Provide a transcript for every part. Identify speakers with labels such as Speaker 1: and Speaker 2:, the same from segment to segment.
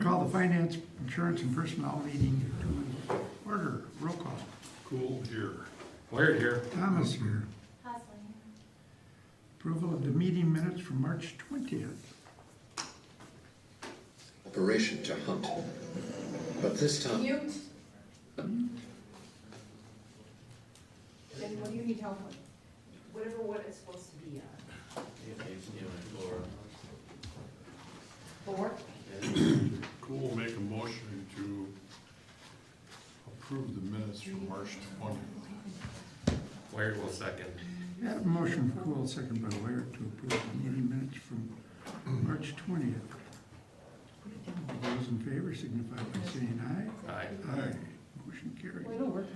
Speaker 1: call the Finance, Insurance, and Personnel meeting to order. Roll call.
Speaker 2: Cool here.
Speaker 3: Weird here.
Speaker 1: Thomas here.
Speaker 4: Hustling.
Speaker 1: Approval of the meeting minutes from March twentieth.
Speaker 5: Operation to hunt. But this time,
Speaker 4: Mute. Then what do you need help with? Whatever what it's supposed to be on. Four?
Speaker 2: Cool make a motion to approve the minutes from March twentieth.
Speaker 3: Weird will second.
Speaker 1: Had a motion from Cool, second by Ware to approve the meeting minutes from March twentieth. Those in favor signify by saying
Speaker 3: Aye.
Speaker 1: aye. Aye. Motion carried.
Speaker 4: Well, it'll work.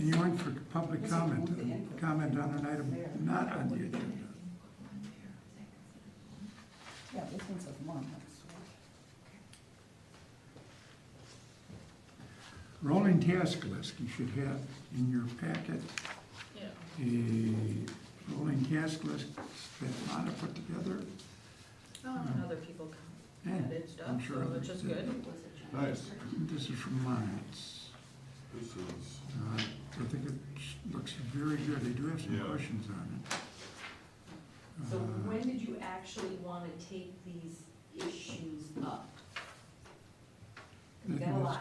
Speaker 1: Anyone for public comment, uh, comment on an item not on the agenda?
Speaker 6: Yeah, this one's a month.
Speaker 1: Rolling task list, you should have in your packet a rolling task list that Lana put together.
Speaker 7: Oh, and other people
Speaker 1: and
Speaker 7: added stuff,
Speaker 1: I'm
Speaker 7: so
Speaker 1: sure
Speaker 7: which is
Speaker 1: others did.
Speaker 7: good.
Speaker 2: Nice.
Speaker 1: This is from Lana. It's,
Speaker 2: This is,
Speaker 1: uh, I think it looks very good. They do have some
Speaker 2: Yeah.
Speaker 1: questions on it.
Speaker 8: So
Speaker 1: Uh,
Speaker 8: when did you actually want to take these issues up? We've got a lot.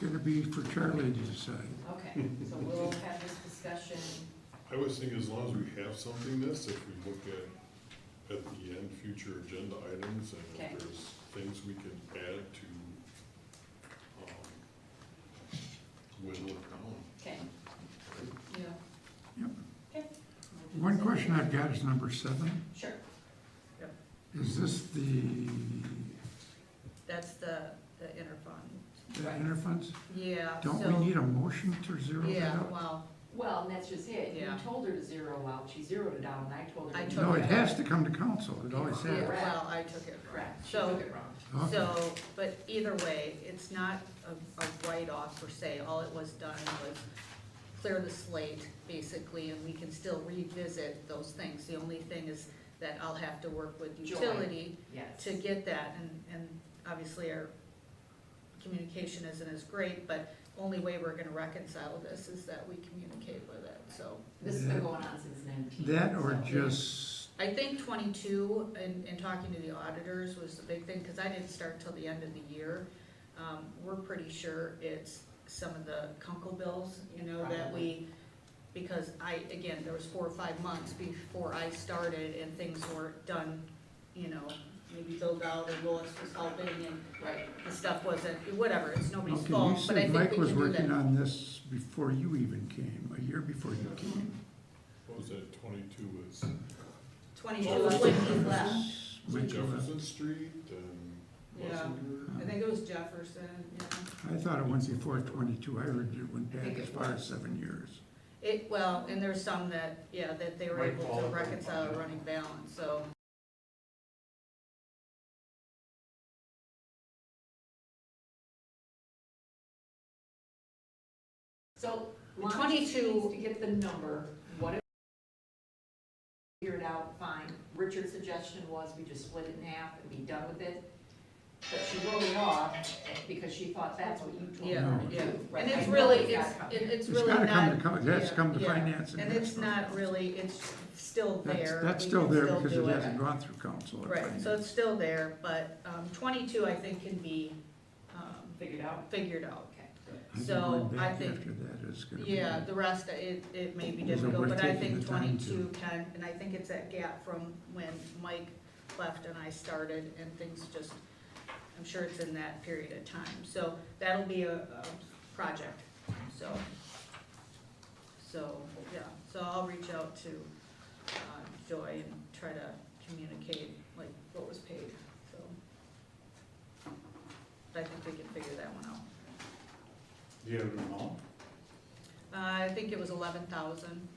Speaker 1: Gonna be for Charlie to decide.
Speaker 8: Okay, so we'll have this discussion.
Speaker 2: I was thinking as long as we have something this, if we look at, at the end, future agenda items and
Speaker 8: Okay.
Speaker 2: if there's things we can add to, um, whittle it down.
Speaker 8: Okay. Yeah.
Speaker 1: Yep.
Speaker 8: Okay.
Speaker 1: One question I've got is number seven.
Speaker 8: Sure.
Speaker 1: Is this the,
Speaker 7: That's the, the interfund.
Speaker 1: the interfunds?
Speaker 7: Yeah, so.
Speaker 1: Don't we need a motion to zero that
Speaker 7: Yeah,
Speaker 1: out?
Speaker 7: well,
Speaker 8: Well, and that's just it. You
Speaker 7: Yeah.
Speaker 8: told her to zero out, she zeroed it out, and I told her.
Speaker 7: I
Speaker 8: to-
Speaker 7: took
Speaker 1: No, it has to come to council, it always
Speaker 7: yeah,
Speaker 1: has.
Speaker 7: well, I took it wrong.
Speaker 8: Correct, she took
Speaker 7: So,
Speaker 8: it wrong.
Speaker 1: Okay.
Speaker 7: so, but either way, it's not a, a write-off per se. All it was done was clear the slate, basically, and we can still revisit those things. The only thing is that I'll have to work with
Speaker 8: Joy.
Speaker 7: utility
Speaker 8: Yes.
Speaker 7: to get that, and, and obviously our communication isn't as great, but only way we're gonna reconcile this is that we communicate with it, so.
Speaker 8: This has been going on since nineteen.
Speaker 1: That or
Speaker 8: so-
Speaker 1: just,
Speaker 7: I think twenty-two, and, and talking to the auditors was the big thing, cause I didn't start till the end of the year. Um, we're pretty sure it's some of the Kunkel bills, you know, that we, because I, again, there was four or five months before I started and things weren't done, you know, maybe Bill Dowd or Lois was helping and
Speaker 8: Right.
Speaker 7: the stuff wasn't, whatever, it's nobody's
Speaker 1: okay, you
Speaker 7: fault, but I
Speaker 1: said
Speaker 7: think
Speaker 1: Mike
Speaker 7: we
Speaker 1: was
Speaker 7: can do
Speaker 1: working
Speaker 7: that.
Speaker 1: on this before you even came, a year before you came.
Speaker 2: What was that, twenty-two is,
Speaker 7: Twenty-two is when he left,
Speaker 2: was
Speaker 1: When
Speaker 2: it
Speaker 1: you left.
Speaker 2: Jefferson Street and
Speaker 7: Yeah.
Speaker 2: Lessinger?
Speaker 7: I think it was Jefferson, yeah.
Speaker 1: I thought it went before twenty-two, I heard it went
Speaker 8: I
Speaker 1: back
Speaker 8: think
Speaker 1: as
Speaker 8: it
Speaker 1: far
Speaker 8: was.
Speaker 1: as seven years.
Speaker 7: It, well, and there's some that, yeah, that they were
Speaker 3: Right,
Speaker 7: able to
Speaker 3: Paul.
Speaker 7: reconcile a running balance, so.
Speaker 8: So, Lana just
Speaker 7: 22
Speaker 8: needs to get the number, what if? Figure it out, fine. Richard's suggestion was we just split it in half and be done with it. But she wrote it off because she thought that's what you told
Speaker 7: Yeah,
Speaker 8: her to
Speaker 7: yeah,
Speaker 8: do. right?
Speaker 7: and
Speaker 8: I
Speaker 7: it's
Speaker 8: know
Speaker 7: really,
Speaker 8: it's
Speaker 7: it's,
Speaker 8: gotta come
Speaker 7: it-
Speaker 8: here.
Speaker 1: It's
Speaker 7: it's really
Speaker 1: gotta come to,
Speaker 7: not.
Speaker 1: co- it has to come to
Speaker 7: yeah, yeah.
Speaker 1: finance and.
Speaker 7: And
Speaker 1: that's
Speaker 7: it's not really, it's still
Speaker 1: That's,
Speaker 7: there.
Speaker 1: that's
Speaker 7: We
Speaker 1: still
Speaker 7: can
Speaker 1: there because
Speaker 7: do
Speaker 1: it hasn't gone through council or
Speaker 7: Right, so
Speaker 1: finance.
Speaker 7: it's still there, but, um, twenty-two, I think, can be, um,
Speaker 8: Figured out,
Speaker 7: figured out.
Speaker 8: okay.
Speaker 1: I think
Speaker 7: so
Speaker 1: going
Speaker 7: I
Speaker 1: back
Speaker 7: think-
Speaker 1: After that is gonna be.
Speaker 7: Yeah, the rest, it, it may be
Speaker 1: Is it worth
Speaker 7: difficult, but I
Speaker 1: taking
Speaker 7: think
Speaker 1: the time to-
Speaker 7: twenty-two can, and I think it's that gap from when Mike left and I started, and things just, I'm sure it's in that period of time, so that'll be a, a project, so. So, yeah, so I'll reach out to, uh, Joy and try to communicate, like, what was paid, so. But I think we can figure that one out.
Speaker 3: Do you have an amount?
Speaker 7: Uh, I think it was eleven thousand,